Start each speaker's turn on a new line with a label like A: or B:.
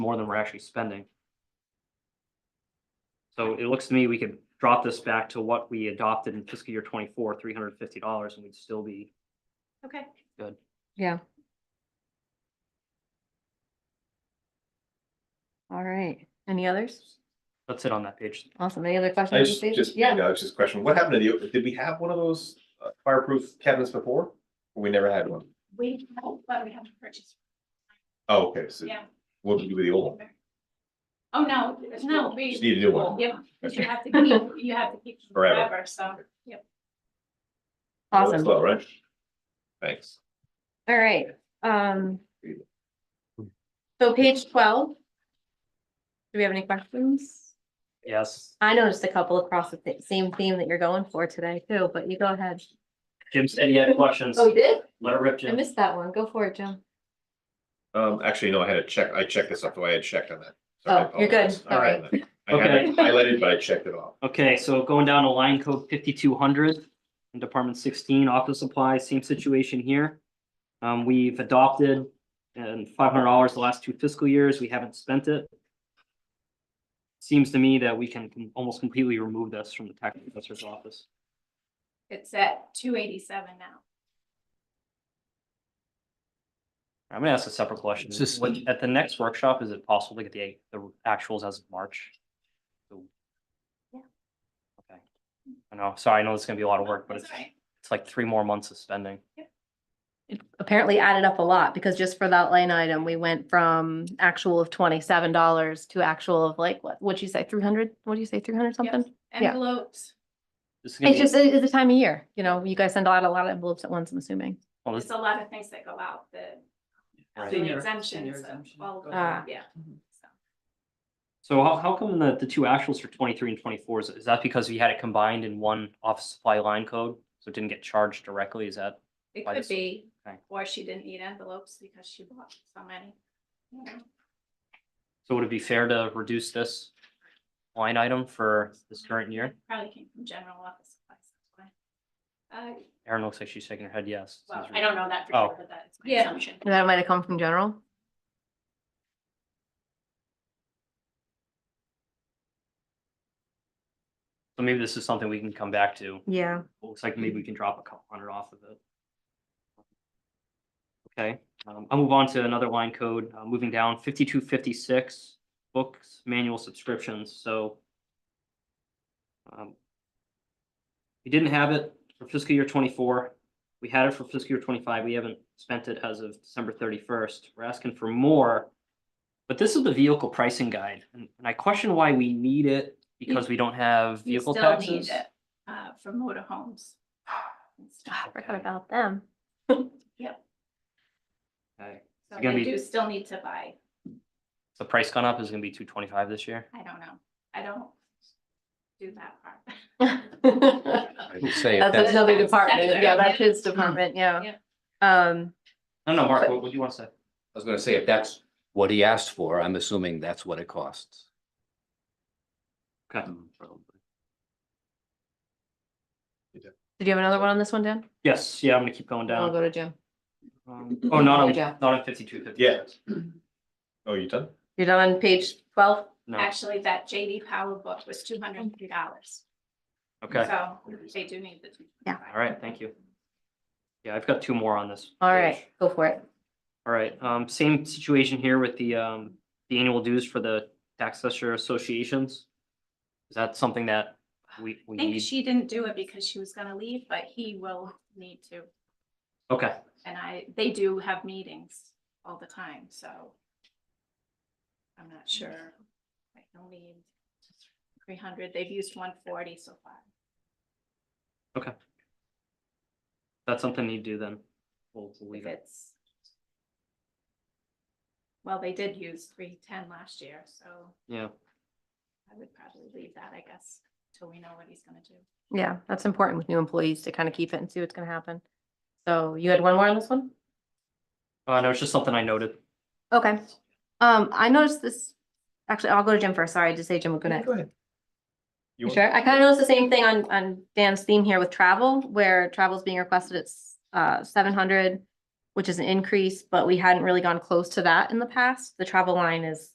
A: more than we're actually spending. So it looks to me we could drop this back to what we adopted in fiscal year twenty-four, three hundred and fifty dollars, and we'd still be,
B: Okay.
C: Yeah. All right, any others?
A: let's sit on that page.
C: Awesome, any other
D: I
C: questions?
D: just,
C: Steve?
D: just, yeah,
C: Yeah,
D: I was just questioning, what happened to the, did we have one of those uh, fireproof cabinets before? We never had one.
B: We, but we have to purchase,
D: Oh, okay, so
B: yeah.
D: what would you do with the old one?
B: Oh, no, no, we.
D: Just need a new one.
B: Yep, 'cause you have to keep, you have to keep them
D: Forever.
B: forever, so, yep.
C: awesome, all
D: Slow, right? Thanks.
C: right, um. So page twelve. Do we have any questions?
A: Yes,
C: I noticed a couple across the thi- same theme that you're going for today too, but you go ahead.
A: Jim said he had questions.
C: Oh, you did?
A: Let it rip,
C: I
A: Jim.
C: missed that one, go for it, Jim.
D: Um, actually, no, I had to check, I checked this off, the way I had checked on that. So I
C: Oh, you're good,
D: apologize.
C: all right,
D: I had it highlighted, but I checked it off.
A: Okay, so going down to line code fifty-two hundred, in Department sixteen, office supplies, same situation here. Um, we've adopted and five hundred dollars the last two fiscal years, we haven't spent it. Seems to me that we can com- almost completely remove this from the tax assessor's office.
B: It's at two eighty-seven now.
A: I'm gonna ask a separate question.
E: It's just-
A: When- At the next workshop, is it possible to get the, the actuals as of March?
B: Yeah.
A: Okay. I know, sorry, I know it's gonna be a lot of work, but
B: That's
A: it's,
B: all right.
A: it's like three more months of spending.
C: It Apparently added up a lot, because just for that line item, we went from actual of twenty-seven dollars to actual of like, what, what'd you say, three hundred? What'd you say, three hundred something? Yeah.
B: Envelopes,
A: This is gonna
C: It's
A: be-
C: just, it- it's the time of year, you know, you guys send out a lot of envelopes at once, I'm assuming.
A: well, this-
B: it's a lot of things that go out, the
A: Right.
F: Senior-
B: the
F: senior
B: exemptions, so
F: exemption.
B: all of
F: Go
C: ahead.
B: that, yeah. So,
A: So how, how come the, the two actuals for twenty-three and twenty-four, is, is that because we had it combined in one office supply line code? So it didn't get charged directly, is that,
B: It
A: Why
B: could
A: this-
B: be,
A: okay.
B: or she didn't need envelopes because she bought so many. you know.
A: so would it be fair to reduce this line item for this current year?
B: Probably came from general office supplies. that's why. Uh,
A: Erin looks like she's shaking her head yes.
B: well, I don't know that for
A: Oh.
B: sure, but that is my
F: Yeah.
B: assumption.
C: And That might have come from general.
A: So maybe this is something we can come back to.
C: Yeah.
A: Looks like maybe we can drop a couple hundred off of it. Okay, um, I'll move on to another line code, uh, moving down fifty-two fifty-six, books, manual subscriptions, so. um, We didn't have it for fiscal year twenty-four, we had it for fiscal year twenty-five, we haven't spent it as of December thirty-first, we're asking for more. But this is the vehicle pricing guide, and and I question why we need it because we don't have
B: You
A: vehicle
B: still need
A: taxes.
B: it uh, for motorhomes. and stuff.
C: Ah, Forgot about them.
A: Okay.
B: So
A: It's gonna
B: they
A: be-
B: do still need to buy,
A: The price gone up is gonna be two twenty-five this year.
B: I don't know, I don't do that part.
C: That's
E: I'd say if that's,
C: another
B: that's
C: department,
B: separate.
C: yeah, that's his department, yeah. Um,
A: No, no, Mark, what, what do you wanna say?
E: I was gonna say, if that's what he asked for, I'm assuming that's what it costs.
A: Okay.
C: did you have another one on this one, Dan?
A: Yes, yeah, I'm gonna keep going
C: Then I'll
A: down.
C: go to Jim.
A: Um, Oh, not on,
C: Yeah.
A: not on fifty-two, fifty.
D: Yeah. Oh, you done?
C: You're done on page twelve?
A: No,
B: Actually, that JD Power book was two hundred and three dollars,
A: okay,
B: so they do need the. two.
C: Yeah.
A: all right, thank you. Yeah, I've got two more on this.
C: All
A: page.
C: right, go for it.
A: All right, um, same situation here with the, um, the annual dues for the tax assessor associations. Is that something that we, we
B: I think
A: need?
B: she didn't do it because she was gonna leave, but he will need to,
A: Okay,
B: and I, they do have meetings all the time, so. I'm not sure, I will need three hundred, they've used one forty so far.
A: that's something you do then. We'll we'll
B: if
A: leave it.
B: it's. Well, they did use three ten last year, so
A: Yeah,
B: I would probably leave that, I guess, till we know what he's gonna do.
C: Yeah, that's important with new employees to kind of keep it and see what's gonna happen. So you had one more on this one?
A: uh, no, it's just something I noted.
C: Okay. Um, I noticed this, actually, I'll go to Jim first. Sorry, I just say Jim, we'll go next.
D: Go ahead. You
C: You
D: want-
C: Sure, I kind of noticed the same thing on, on Dan's theme here with travel, where travel's being requested at, s- uh, seven hundred, which is an increase, but we hadn't really gone close to that in the past. The travel line is